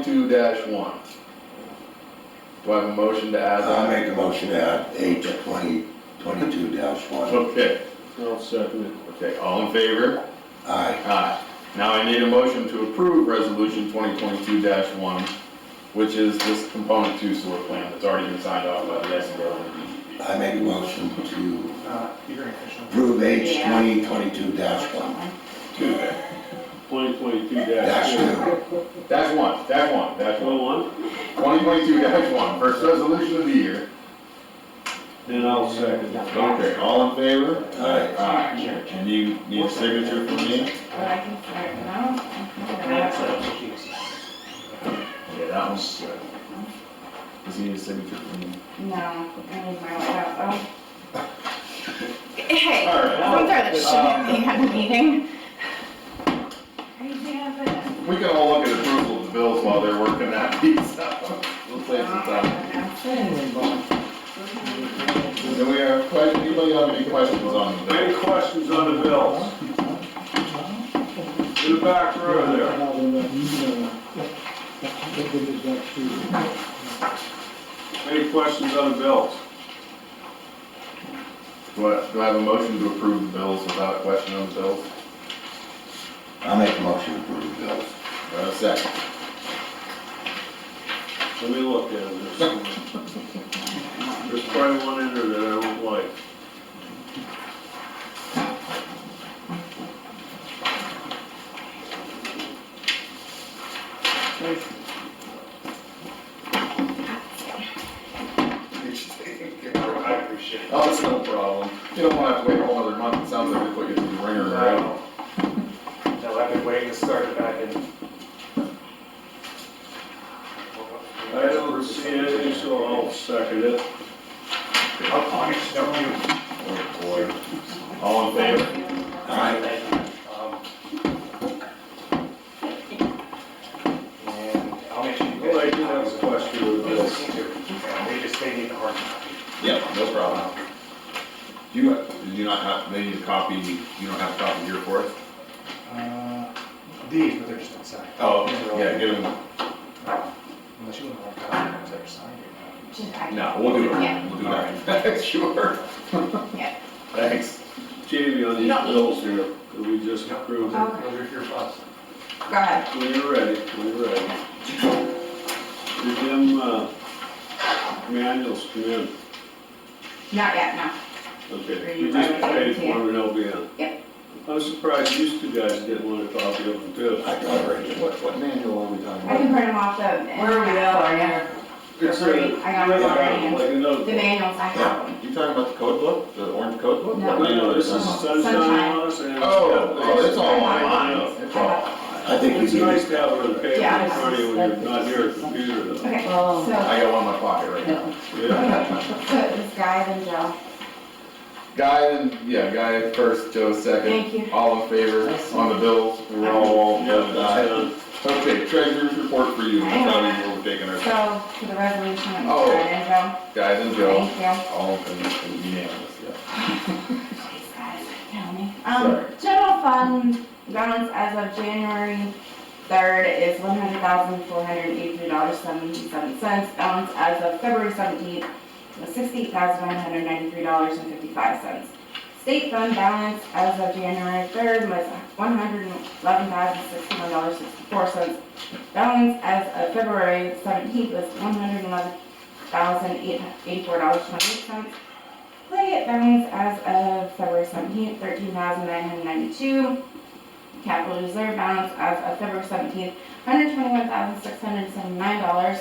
2022-1. Do I have a motion to add I'll that? make a motion to add eight twenty, twenty-two dash one. Okay, I'll second it. okay, all in favor? Aye. Aye. Now I need a motion to approve Resolution 2022-1, which is this component two sewer plan that's already been signed off by the SBO and DEP. I make a motion to Uh, you're inefficient. approve eight Yeah. twenty, twenty-two dash one. Twenty twenty-two Dash two. Dash one, dash one, dash one. Oh, one, 2022-1, first resolution of the year. then I'll second it. Okay, all in favor? Aye. Aye. And you need a signature from me? But I can start, no, I can That's start. a Jesus. Yeah, that one's good. Does he need a signature from me? No, I need my laptop. Hey, All don't right. throw that shit at me at the meeting. Are you gonna put- We can all look at approval of the bills while they're working that piece out. We'll save some time. Do we have questions, anybody have any questions on the bill? Any questions on the bills? In the back row there. Any questions on the bills? Do I, do I have a motion to approve the bills without question on the bills? I'll make a motion to approve the bills. Do I have a second? Let me look at it. There's probably one in there that I don't like. I appreciate it. Oh, it's no problem. You don't wanna have to wait a whole other month, it sounds like we put you through the ringer now. No, I've been waiting to start it back in. I don't see anything, so I'll second it. I'll punish them. Oh, boy. All in favor? Aye. Um, And I'll make sure you guys. Well, I do have a question with We'll this. see too. And They just, they need the hard copy. Yeah, no problem. Do you, do you not have, they need a copy, you don't have a copy here for it? Uh, These, but they're just outside. Oh, yeah, get them, Unless you want a hard copy, it's either signed or Just act- no, we'll do it, we'll do that. Sure. Yeah. Thanks. Jamie, on You these don't need- bills here, could we just approve them? not. Those are your thoughts. Go ahead. When you're ready, when you're ready. Did them, uh, manuals come in? Not yet, no. Okay, we just paid for them and they'll be in. Yep. I'm surprised these two guys didn't want a copy of them too. I already, What, what manual are we talking I can print them off the. Where are we at? It's a- I got it already. Like another. The manuals, I have them. You talking about the code book, the orange code book? No. Oh, No, this is sunshine Sunshine. on us and. it's Oh, got- oh, it's all I online, have it's all. them. I think It's we need, nice to have it on paper Yeah. in front of you when you're not near a computer though. Okay, Oh. so, I got one in my pocket right now. Yeah. so this guy then Joe. Guy and, yeah, Guy first, Joe second. Thank you. All in favor on the bills, we're all, all Yeah, voted that's aye. it. Okay, treasurer's report for you, Hang on. that's how we- we're taking our, So, to the resolution, that Oh. we started, Joe. Guy and Joe, Thank you. all in favor, unanimous, yeah. Please, guys, tell me. Um, general fund balance as of January third is one hundred thousand, four hundred and eighty-three dollars, seventy-seven cents. Balance as of February seventeenth was sixty-eight thousand, one hundred ninety-three dollars and fifty-five cents. State fund balance as of January third was one hundred and eleven thousand, sixty-one dollars, sixty-four cents. Balance as of February seventeenth was one hundred and eleven thousand, eight, eighty-four dollars, twenty-eight cents. Play balance as of February seventeenth, thirteen thousand nine hundred ninety-two. Capital reserve balance as of February seventeenth, hundred twenty-one thousand six hundred seventy-nine dollars.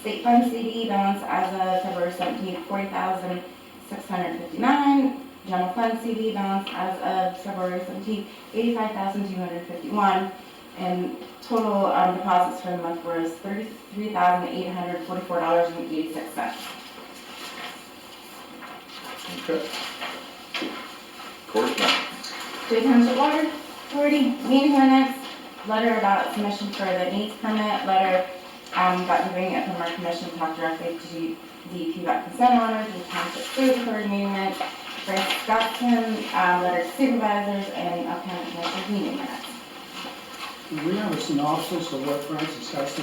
State fund CD balance as of February seventeenth, forty thousand six hundred fifty-nine. General fund CD balance as of February seventeenth, eighty-five thousand two hundred fifty-one. And total um, deposits for the month was thirty-three thousand eight hundred forty-four dollars and eighty-six cents. Okay. Of course not. Three Township Water Authority, meeting minutes, letter about submission for the needs permit, letter, um, about giving it from our commission, talk directly to DEP about consent orders, and township food authority meeting minutes, Frank um, Scottson, uh, letter to supervisors, and upcoming commission meeting minutes. Do we have a synopsis of what Francis has to